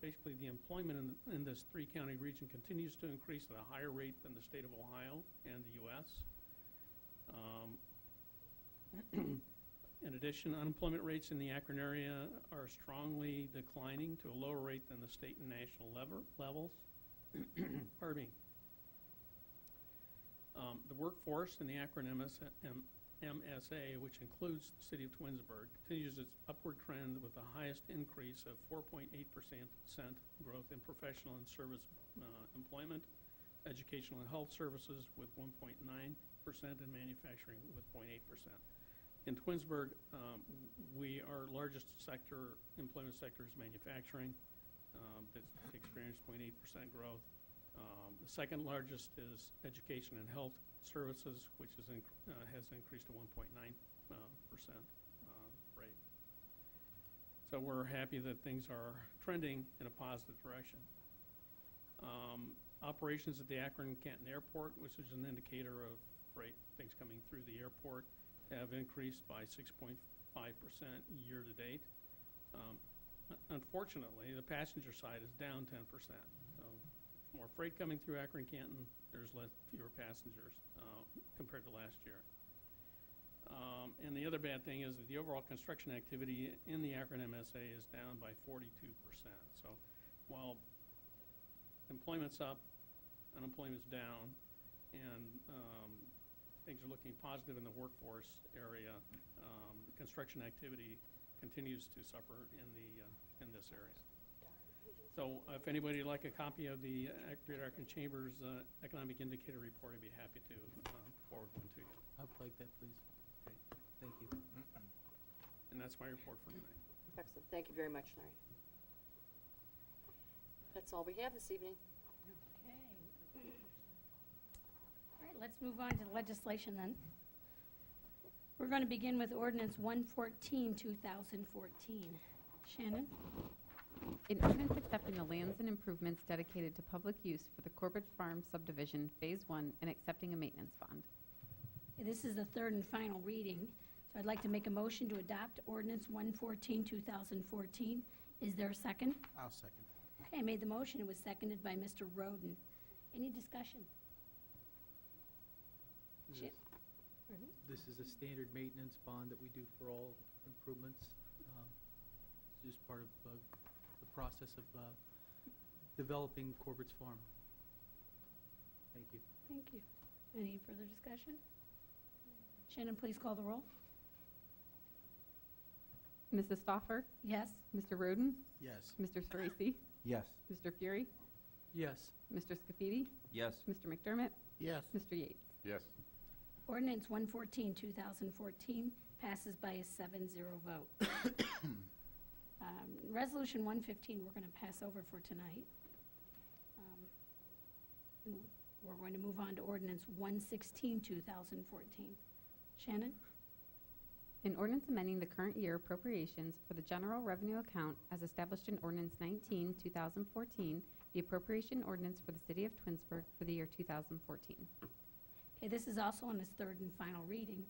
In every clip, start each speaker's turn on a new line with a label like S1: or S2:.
S1: basically the employment in, in this three-county region continues to increase at a higher rate than the state of Ohio and the US. Um, In addition, unemployment rates in the Akron area are strongly declining to a lower rate than the state and national lever, levels. Pardon me. Um, The workforce in the Akron MS M- MSA, which includes the city of Twinsburg, continues its upward trend with the highest increase of 4.8% cent growth in professional and service uh, employment, educational and health services with 1.9%, and manufacturing with 0.8%. In Twinsburg, um, we, our largest sector, employment sector is manufacturing. um, That's experienced 0.8% growth. Um, The second largest is education and health services, which is, inc- uh, has increased to 1.9 uh, percent uh, rate. So we're happy that things are trending in a positive direction. Um, Operations at the Akron Canton Airport, which is an indicator of freight, things coming through the airport, have increased by 6.5% year-to-date. Um, un- Unfortunately, the passenger side is down 10%. So more freight coming through Akron Canton, there's less, fewer passengers, uh, compared to last year. Um, and the other bad thing is that the overall construction activity in the Akron MSA is down by forty-two percent. So while employment's up, unemployment's down, and, um, things are looking positive in the workforce area, um, construction activity continues to suffer in the, uh, in this area. So if anybody would like a copy of the uh, Great Akron Chambers uh, Economic Indicator Report, I'd be happy to um, forward one to you.
S2: I'd like that, please.
S1: Okay.
S2: Thank you.
S1: And that's my report for tonight.
S3: Excellent, thank you very much, Larry. That's all we have this evening.
S4: Okay. All right, let's move on to legislation then. We're going to begin with ordinance 114, 2014. Shannon?
S5: An ordinance accepting the lands and improvements dedicated to public use for the Corbett Farm subdivision, Phase One, and accepting a maintenance bond.
S4: This is the third and final reading, so I'd like to make a motion to adopt ordinance 114, 2014. Is there a second?
S2: I'll second.
S4: Okay, I made the motion, it was seconded by Mr. Roden. Any discussion?
S2: This
S4: Shan-
S2: is-
S4: Pardon?
S2: This is a standard maintenance bond that we do for all improvements. um, It's just part of uh, the process of uh, developing Corbett's Farm. Thank you.
S4: Thank you. Any further discussion? Shannon, please call the roll.
S5: Mrs. Stoffer?
S4: Yes?
S5: Mr. Roden?
S2: Yes.
S5: Mr. Sorese?
S6: Yes.
S5: Mr. Fury?
S2: Yes.
S5: Mr. Scafidi?
S6: Yes.
S5: Mr. McDermott?
S2: Yes.
S5: Mr. Yates?
S6: Yes.
S4: Ordinance 114, 2014 passes by a 7-0 vote. Um, Resolution 115, we're going to pass over for tonight. Um, and We're going to move on to ordinance 116, 2014. Shannon?
S5: An ordinance amending the current year appropriations for the general revenue account as established in ordinance 19, 2014, the appropriation ordinance for the city of Twinsburg for the year 2014.
S4: Okay, this is also on its third and final reading,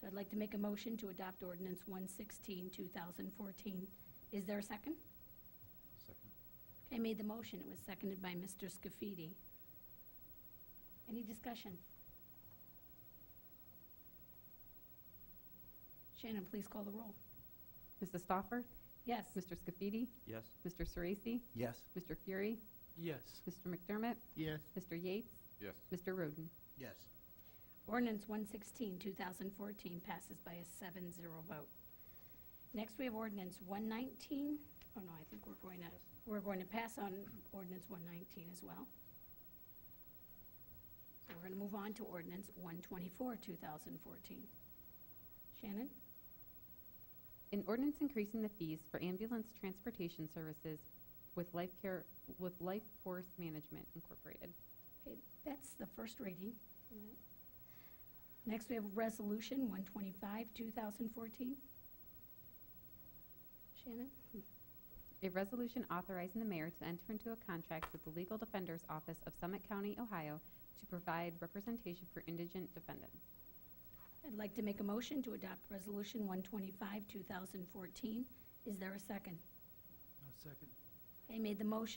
S4: so I'd like to make a motion to adopt ordinance 116, 2014. Is there a second?
S6: Second.
S4: Okay, I made the motion. It was seconded by Mr. Scafidi. Any discussion? Shannon, please call the roll.
S5: Mrs. Stoffer?
S4: Yes.
S5: Mr. Scafidi?
S6: Yes.
S5: Mr. Sorese?
S6: Yes.
S5: Mr. Fury?
S2: Yes.
S5: Mr. McDermott?
S2: Yes.
S5: Mr. Yates?
S6: Yes.
S5: Mr. Roden?
S2: Yes.
S4: Ordinance 116, 2014 passes by a 7-0 vote. Next, we have ordinance 119. Oh, no, I think we're going to, we're going to pass on ordinance 119 as well. So we're going to move on to ordinance 124, 2014. Shannon?
S5: An ordinance increasing the fees for ambulance transportation services with Life Care, with Life Force Management Incorporated.
S4: Okay, that's the first reading. Next, we have Resolution 125, 2014. Shannon?
S5: A resolution authorizing the mayor to enter into a contract with the Legal Defender's Office of Summit County, Ohio, to provide representation for indigent defendants.
S4: I'd like to make a motion to adopt Resolution 125, 2014. Is there a second?
S2: I'll second.
S4: Okay, made the motion